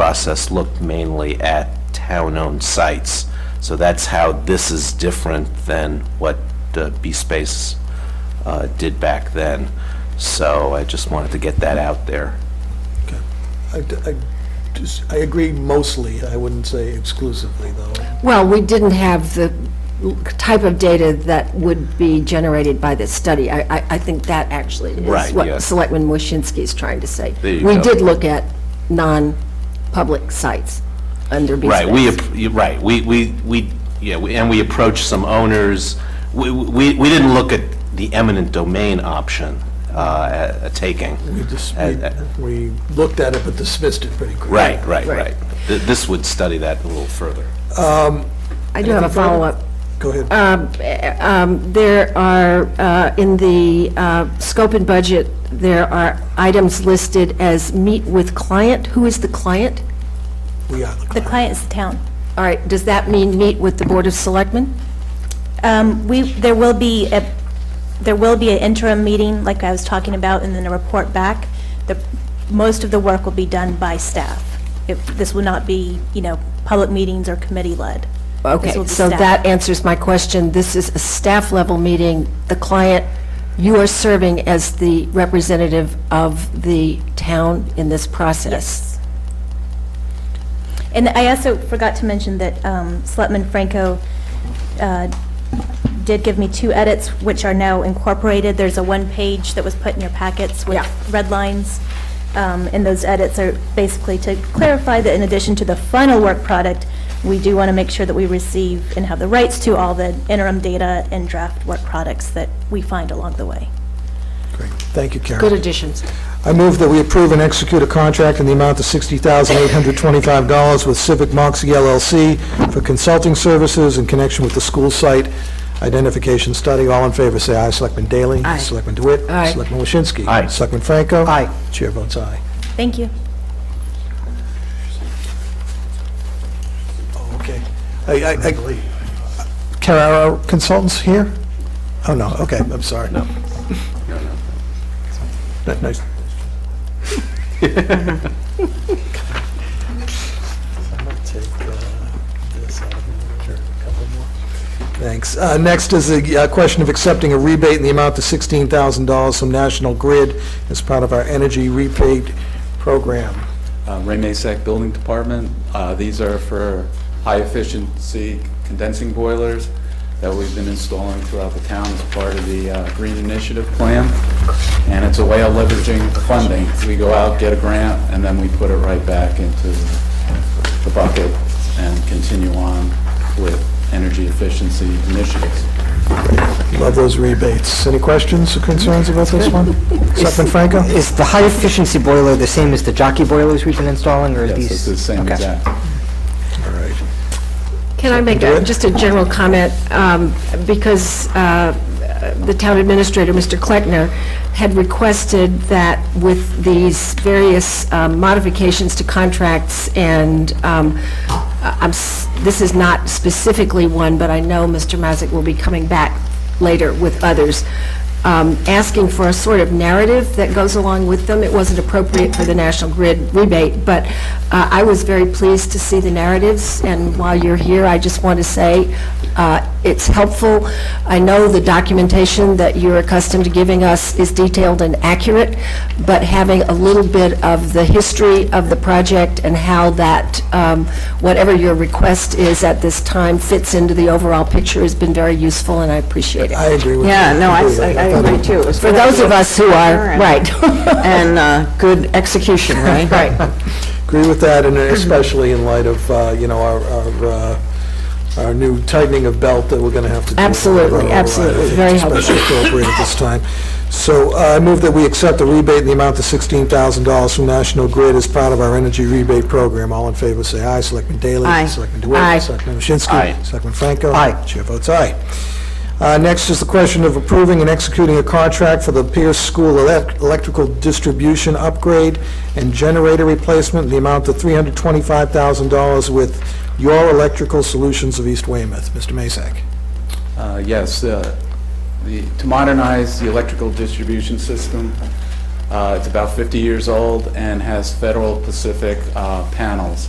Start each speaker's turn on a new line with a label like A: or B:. A: process looked mainly at town-owned sites. So that's how this is different than what uh, B-Space uh, did back then. So I just wanted to get that out there.
B: I, I just- I agree mostly, I wouldn't say exclusively, though.
C: Well, we didn't have the l- type of data that would be generated by this study. I, I, I think that actually
A: Right,
C: is what
A: yes.
C: Selectman Waschinsky is trying to say.
A: There you
C: We
A: go.
C: did look at non-public sites under B
A: Right, we,
C: space.
A: ap- you- right, we, we, we, yeah, we- and we approached some owners. We, we, we didn't look at the eminent domain option uh, a- a taking.
B: We
C: Mm-hmm.
B: just,
A: Uh, uh,
B: we we looked at it but dismissed it pretty quickly.
A: Right, right,
C: Right.
A: right. Th- This would study that a little further.
C: I do have a follow-up.
B: Go ahead.
C: Um, eh, um, There are, uh, in the uh, scope and budget, there are items listed as meet with client. Who is the client?
B: We are the
D: The
B: client.
D: client is the town.
C: All right, does that mean meet with the Board of Selectmen?
D: Um, We, there will be, a there will be an interim meeting, like I was talking about, and then a report back. The, most of the work will be done by staff. If- This will not be, you know, public meetings or committee-led. This will
C: Okay,
D: be
C: so
D: staff.
C: that answers my question. This is a staff-level meeting. The client, you are serving as the representative of the town in this process.
D: Yes. And I also forgot to mention that um, Selectman Franco uh, did give me two edits, which are now incorporated. There's a one page that was put in your packets with
C: Yeah.
D: red lines. um, And those edits are basically to clarify that in addition to the final work product, we do want to make sure that we receive and have the rights to all the interim data and draft work products that we find along the way.
B: Great. Thank you,
C: Good
B: Karen.
C: additions.
B: I move that we approve and execute a contract in the amount of $60,825 with Civic E Moxie LLC for consulting services in connection with the school site identification study. All in favor, say aye. Selectman Daley?
C: Aye.
B: Selectman DeWitt?
C: Aye.
B: Selectman Waschinsky?
A: Aye.
B: Selectman Franco? Aye. Chair votes aye.
D: Thank you.
B: Oh, okay. I, I, I- Carrara Consultants here? Oh, no, okay, I'm sorry. No. Nice. Thanks. Uh, Next is a uh, question of accepting a rebate in the amount of $16,000 from National Grid as part of our energy rebate program.
E: Uh, Ray Masak Building Department. Uh, These are for high-efficiency condensing boilers that we've been installing throughout the town as part of the uh, Green Initiative Plan. And it's a way of leveraging funding. We go out, get a grant, and then we put it right back into the bucket and continue on with energy efficiency initiatives.
B: Love those rebates. Any questions or concerns about this one? Selectman Franco?
F: Is the high-efficiency boiler the same as the jockey boilers we've been installing, or are
E: Yes,
F: these?
E: it's the same
F: Okay.
E: exact.
B: All right.
C: Can I make a- just a general comment? Um, Because uh, the town administrator, Mr. Kleckner, had requested that with these various um, modifications to contracts, and um, I- I'm s- this is not specifically one, but I know Mr. Mazick will be coming back later with others, um, asking for a sort of narrative that goes along with them. It wasn't appropriate for the National Grid rebate, but uh, I was very pleased to see the narratives, and while you're here, I just want to say uh, it's helpful. I know the documentation that you're accustomed to giving us is detailed and accurate, but having a little bit of the history of the project and how that, um, whatever your request is at this time fits into the overall picture has been very useful, and I appreciate it.
B: I agree with you.
G: Yeah, no, I, I
B: thought it-
G: agree too. It's
C: For those of us who are,
G: Sure.
C: right.
G: And, uh, good execution, right?
C: Right.
B: Agree with that, and especially in light of, uh, you know, our, our, uh, our new tightening of belt that we're going to have to do.
C: Absolutely,
B: Right,
C: absolutely.
B: I think
C: Very
B: it's
C: helpful.
B: Especially appropriate at this time. So uh, I move that we accept the rebate in the amount of $16,000 from National Grid as part of our energy rebate program. All in favor, say aye. Selectman Daley?
G: Aye.
B: Selectman DeWitt?
C: Aye.
B: Selectman Waschinsky?
A: Aye.
B: Selectman Franco?
F: Aye.
B: Chair votes aye. Uh, Next is the question of approving and executing a contract for the Pierce School elec- electrical distribution upgrade and generator replacement in the amount of $325,000 with Your Electrical Solutions of East Weymouth. Mr. Masak.
E: Uh, Yes, uh, the- to modernize the electrical distribution system, Uh, It's about 50 years old and has Federal Pacific uh, panels